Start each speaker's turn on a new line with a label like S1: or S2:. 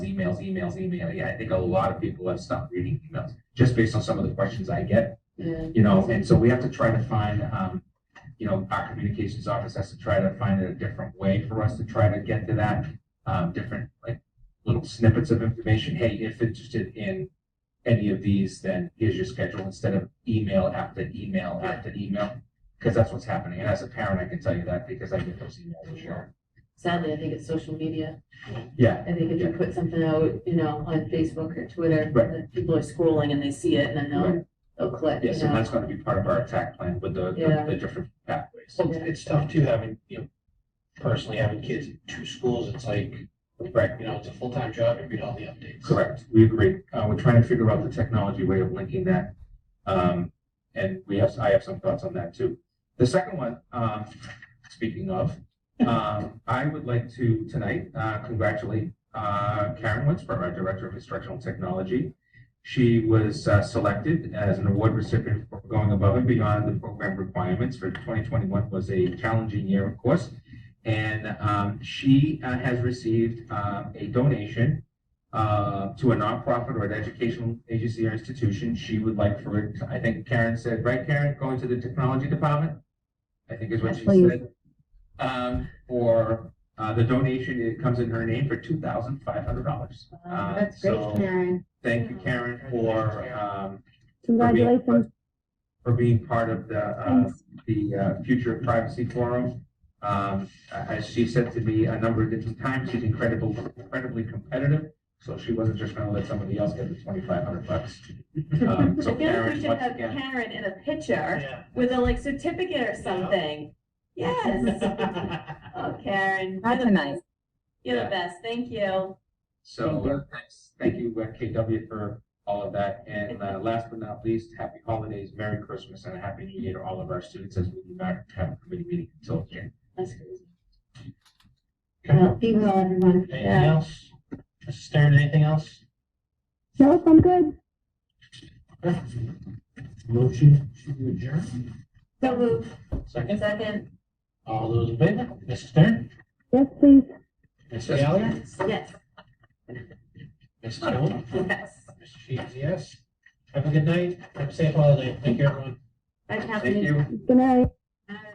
S1: emails, email. Yeah, I think a lot of people have stopped reading emails just based on some of the questions I get,
S2: Yeah.
S1: you know, and so we have to try to find, um, you know, our communications office has to try to find a different way for us to try to get to that, um, different, like, little snippets of information. Hey, if interested in any of these, then here's your schedule instead of email after email after email. Because that's what's happening. And as a parent, I can tell you that because I get those emails for sure.
S2: Sadly, I think it's social media.
S1: Yeah,
S2: I think if you put something out, you know, on Facebook or Twitter,
S1: Right.
S2: that people are scrolling and they see it and then they'll, they'll click, you
S1: yes, and
S2: know.
S1: that's gonna be part of our attack plan with the,
S2: Yeah.
S1: the- the different pathways.
S3: Well, it's tough too, having, you know, personally having kids in two schools, it's like,
S1: Right,
S3: you know, it's a full-time job to read all the updates.
S1: correct, we agree. Uh, we're trying to figure out the technology way of linking that. Um, and we have, I have some thoughts on that too. The second one, um, speaking of, um, I would like to tonight, uh, congratulate, uh, Karen Winsper, our Director of Instructional Technology. She was, uh, selected as an award recipient for going above and beyond the program requirements for twenty twenty-one was a challenging year, of course. And, um, she, uh, has received, um, a donation uh, to a nonprofit or an educational agency or institution, she would like for it, I think Karen said, right, Karen, going to the technology department? I think is what she
S4: Please.
S1: said. Um, or, uh, the donation, it comes in her name for two thousand five hundred dollars. Uh,
S4: Wow, That's great, Karen.
S1: Thank you, Karen, for, um, for being-
S4: Congratulations.
S1: For being part of the, uh,
S4: Thanks.
S1: the uh, Future of Privacy Forum. Um, As she said to me a number of different times, she's incredible, incredibly competitive, so she wasn't just going to let somebody else get the 2,500 bucks. Um,
S5: I feel
S1: So
S5: like we
S1: Karen,
S5: should
S1: once
S5: have
S1: again,
S5: Karen in a picture
S3: Yeah.
S5: with a like certificate or something. Yes. Oh, Karen. you're
S4: That's
S5: the-
S4: nice.
S5: You're the best. Thank you.
S1: so uh, thanks, thank you, uh, KW, for all of that. And uh, last but not least, happy holidays, Merry Christmas, and a Happy New Year to all of our students as we do not have a committee meeting until January.
S2: That's crazy. Uh,
S4: Well, Be well, everyone.
S3: Anything else? Mrs. Stern, anything else?
S4: Nope, I'm good.
S3: Motion to adjourn,
S2: So moved.
S3: second,
S2: Second,
S3: all those in favor, Mrs. Stern,
S4: Yes, please.
S3: Mrs. Gallagher,
S2: yes,
S3: Mrs. Stone,
S2: yes.
S3: Mr. Sheets, yes. Have a good night, have a safe holiday, thank you, everyone.
S2: Bye, Kathleen.
S1: Thank you.
S4: Good night.